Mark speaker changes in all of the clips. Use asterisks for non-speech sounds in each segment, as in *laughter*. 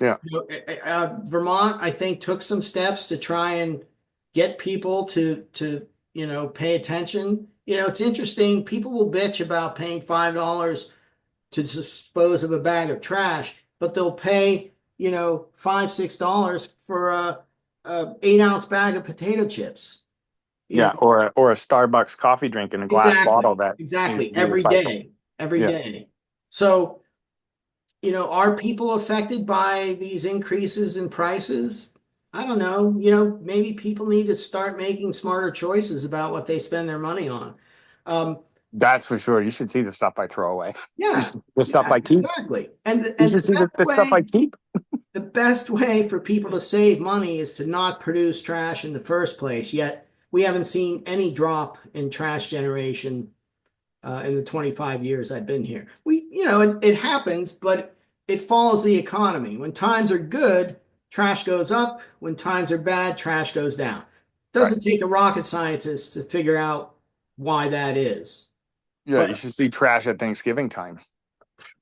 Speaker 1: Yeah.
Speaker 2: You know, eh, eh, uh, Vermont, I think, took some steps to try and get people to, to, you know, pay attention. You know, it's interesting, people will bitch about paying five dollars to dispose of a bag of trash, but they'll pay, you know, five, six dollars for a, a eight ounce bag of potato chips. You
Speaker 1: Yeah,
Speaker 2: know,
Speaker 1: or a, or a Starbucks coffee drink in a glass
Speaker 2: Exactly.
Speaker 1: bottle that
Speaker 2: Exactly,
Speaker 1: is
Speaker 2: every
Speaker 1: recycled.
Speaker 2: day, every
Speaker 1: Yes.
Speaker 2: day. So, you know, are people affected by these increases in prices? I don't know, you know, maybe people need to start making smarter choices about what they spend their money on. Um,
Speaker 1: that's for sure. You should see the stuff I throw away.
Speaker 2: yeah,
Speaker 1: The stuff
Speaker 2: yeah,
Speaker 1: I keep.
Speaker 2: Exactly, and, the-
Speaker 1: You
Speaker 2: and
Speaker 1: should see the,
Speaker 2: the
Speaker 1: the
Speaker 2: best
Speaker 1: stuff
Speaker 2: way-
Speaker 1: I keep.
Speaker 2: the best way for people to save money is to not produce trash in the first place, yet we haven't seen any drop in trash generation uh, in the 25 years I've been here. We, you know, it, it happens, but it follows the economy. When times are good, trash goes up. When times are bad, trash goes down. Doesn't take a rocket scientist to figure out why that is.
Speaker 1: Yeah, you
Speaker 2: But-
Speaker 1: should see trash at Thanksgiving time.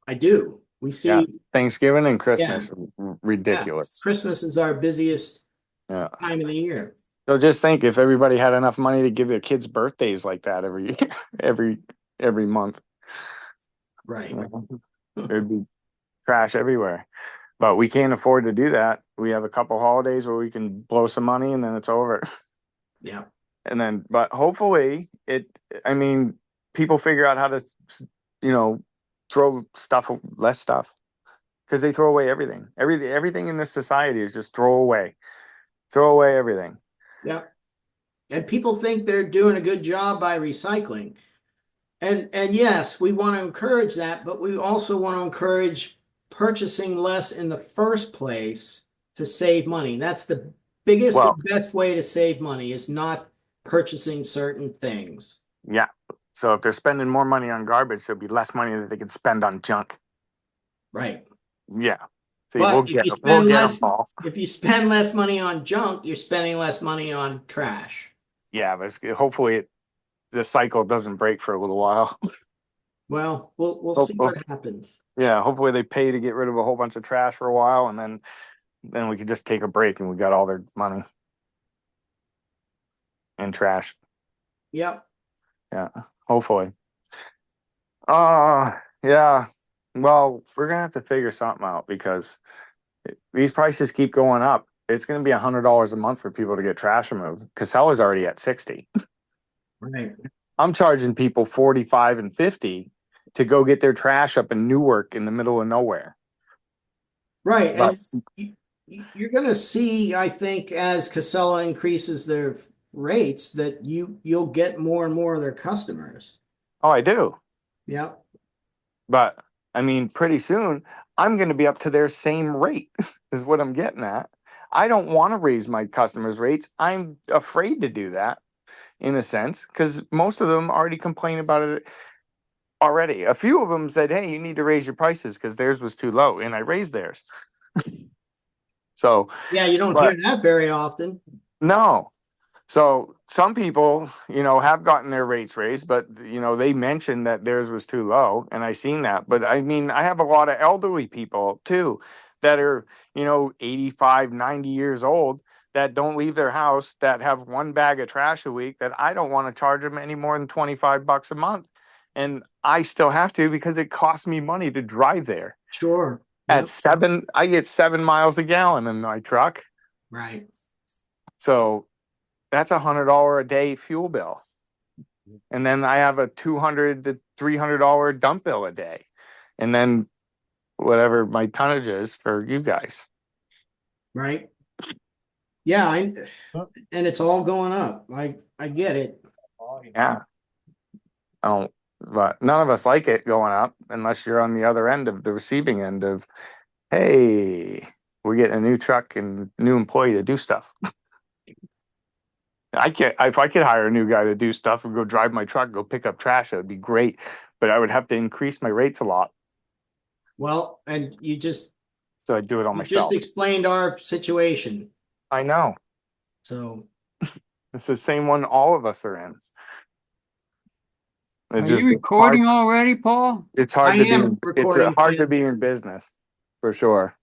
Speaker 2: I do. We see
Speaker 1: Yeah. Thanksgiving and Christmas, r- ridiculous.
Speaker 2: Christmas is our busiest
Speaker 1: Yeah.
Speaker 2: time of the year.
Speaker 1: So just think if everybody had enough money to give their kids birthdays like that every *laughs* year, every every month,
Speaker 2: Right.
Speaker 1: you know, there'd be trash everywhere. But we can't afford to do that. We have a couple holidays where we can blow some money and then it's over. *laughs*
Speaker 2: Yeah.
Speaker 1: and then but hopefully it i mean people figure out how to s- you know throw stuff a- less stuff because they throw away everything everything everything in this society is just throw away throw away everything
Speaker 2: And people think they're doing a good job by recycling. And and yes, we want to encourage that, but we also want to encourage purchasing less in the first place to save money. That's the biggest
Speaker 1: Well-
Speaker 2: and best way to save money is not purchasing certain things.
Speaker 1: yeah so if they're spending more money on garbage there'll be less money that they can spend on junk
Speaker 2: Right.
Speaker 1: yeah see
Speaker 2: But
Speaker 1: we'll
Speaker 2: if
Speaker 1: get,
Speaker 2: you
Speaker 1: we'll
Speaker 2: spend
Speaker 1: get 'em,
Speaker 2: less-
Speaker 1: Paul.
Speaker 2: If you spend less money on junk, you're spending less money on trash.
Speaker 1: yeah but it's, hopefully it, the cycle doesn't break for a little while *laughs*
Speaker 2: Well, we'll we'll
Speaker 1: Oh,
Speaker 2: see
Speaker 1: oh.
Speaker 2: what happens.
Speaker 1: yeah hopefully they pay to get rid of a whole bunch of trash for a while and then then we could just take a break and we got all their money and trash
Speaker 2: Yep.
Speaker 1: hopefully uh yeah well we're gonna have to figure something out because these prices keep going up it's gonna be a hundred dollars a month for people to get trash removed casella's already at 60
Speaker 2: Right.
Speaker 1: i'm charging people 45 and 50 to go get their trash up in newark in the middle of nowhere
Speaker 2: Right. and
Speaker 1: But-
Speaker 2: it's- you- you- You're gonna see, I think, as Casella increases their f- rates, that you, you'll get more and more of their customers.
Speaker 1: oh i do
Speaker 2: Yep,
Speaker 1: But I mean, pretty soon I'm going to be up to their same rate, *laughs* is what I'm getting at. I don't want to raise my customers' rates. I'm afraid to do that in a sense because most of them already complain about it already. A few of them said, Hey, you need to raise your prices because theirs was too low, and I raised theirs. *laughs* so,
Speaker 2: yeah, you don't hear that very often.
Speaker 1: no. So some people, you know, have gotten their rates raised, but you know, they mentioned that theirs was too low, and I seen that. But I mean, I have a lot of elderly people too that are, you know, 85, 90 years old that don't leave their house that have one bag of trash a week that I don't want to charge them any more than 25 bucks a month. And I still have to because it costs me money to drive there.
Speaker 2: Sure.
Speaker 1: At
Speaker 2: Yep,
Speaker 1: seven, I get seven miles a gallon in my truck.
Speaker 2: Right,
Speaker 1: So that's a hundred dollar a day fuel bill. And then I have a two hundred to three hundred dollar dump bill a day. And then whatever my tonnage is for you guys.
Speaker 2: right. Yeah, I, and it's all going up. I, I get it.
Speaker 1: Yeah. I don't but none of us like it going up unless you're on the other end of the receiving end of hey, we're getting a new truck and new employee to do stuff. I can't if I could hire a new guy to do stuff and go drive my truck, go pick up trash, that would be great. But I would have to increase my rates a lot.
Speaker 2: Well, and you just,
Speaker 1: So I do it on
Speaker 2: you just
Speaker 1: myself.
Speaker 2: explained our situation,
Speaker 1: I know.
Speaker 2: so.
Speaker 1: It's the same one all of us are in. It
Speaker 3: Are
Speaker 1: just-
Speaker 3: you recording already, Paul?
Speaker 1: It's hard,
Speaker 2: I
Speaker 1: it's hard to
Speaker 2: am
Speaker 1: be, in- it's uh,
Speaker 2: recording,
Speaker 1: hard to
Speaker 2: yeah.
Speaker 1: be in business, for sure.